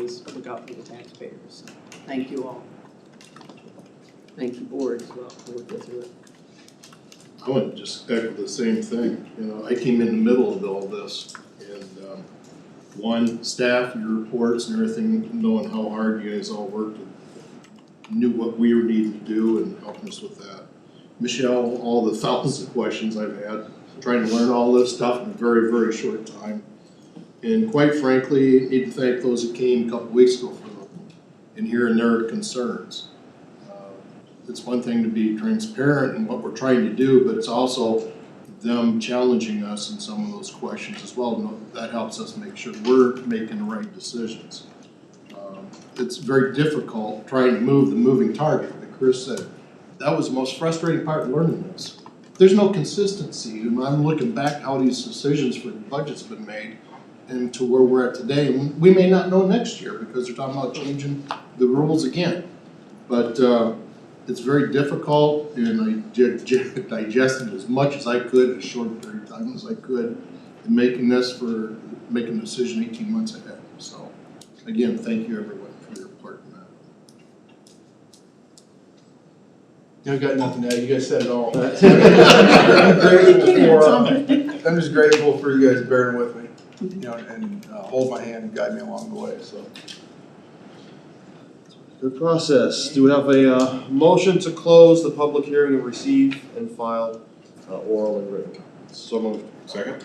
is look out for the taxpayers. Thank you all. Thank you board as well for working through it. I would just echo the same thing, you know, I came in the middle of all this and um one, staff, your reports and everything, knowing how hard you guys all worked and knew what we were needing to do and helping us with that. Michelle, all the thousands of questions I've had, trying to learn all this stuff in a very, very short time. And quite frankly, need to thank those who came a couple weeks ago for the, and hearing their concerns. Uh, it's one thing to be transparent in what we're trying to do, but it's also them challenging us in some of those questions as well. No- That helps us make sure we're making the right decisions. Um, It's very difficult trying to move the moving target, like Chris said. That was the most frustrating part of learning this. There's no consistency, and I'm looking back how these decisions for the budget's been made and to where we're at today. And we may not know next year because they're talking about changing the rules again. But, uh, it's very difficult and I di- di- digested as much as I could in a short period of time as I could in making this for, making a decision eighteen months ahead, so. Again, thank you everyone for your part in that. I've got nothing to add, you guys said it all. That's- I'm grateful for, I'm just grateful for you guys bearing with me, you know, and uh, hold my hand and guide me along the way, so. Good process. Do we have a uh, motion to close the public hearing and receive and file uh, oral and written comments? So moved. Second.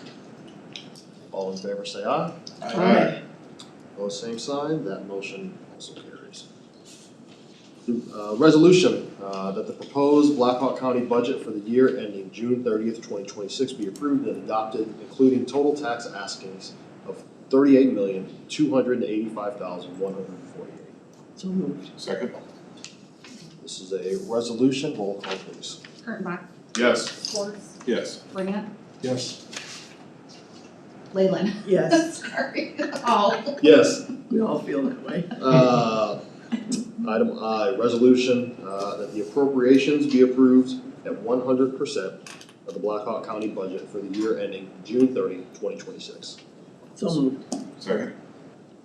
All in favor, say aye. Alright. Opposed, same sign. That motion also carries. Uh, Resolution uh, that the proposed Blackhawk County budget for the year ending June thirtieth, twenty twenty-six be approved and adopted, including total tax askings of thirty-eight million, two hundred and eighty-five thousand, one hundred and forty-eight. So moved. Second. This is a resolution, roll call please. Kurttenbach, Yes. Schwartz, Yes. Brant, Yes. Leyland. Yes, Sorry, Oh. all. Yes. we all feel that way. Uh, Item I, resolution uh, that the appropriations be approved at one hundred percent of the Blackhawk County budget for the year ending June 30, 2026. So moved. Second.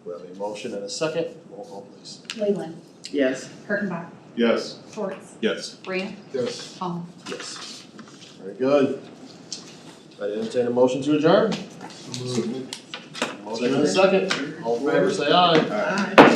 We have a motion and a second, roll call please. Leyland, Yes. Kurttenbach, Yes. Schwartz, Yes. Brant, Yes. all. Yes. Very good. I entertain a motion to adjourn. Motion and a second, all in favor say aye. Aye.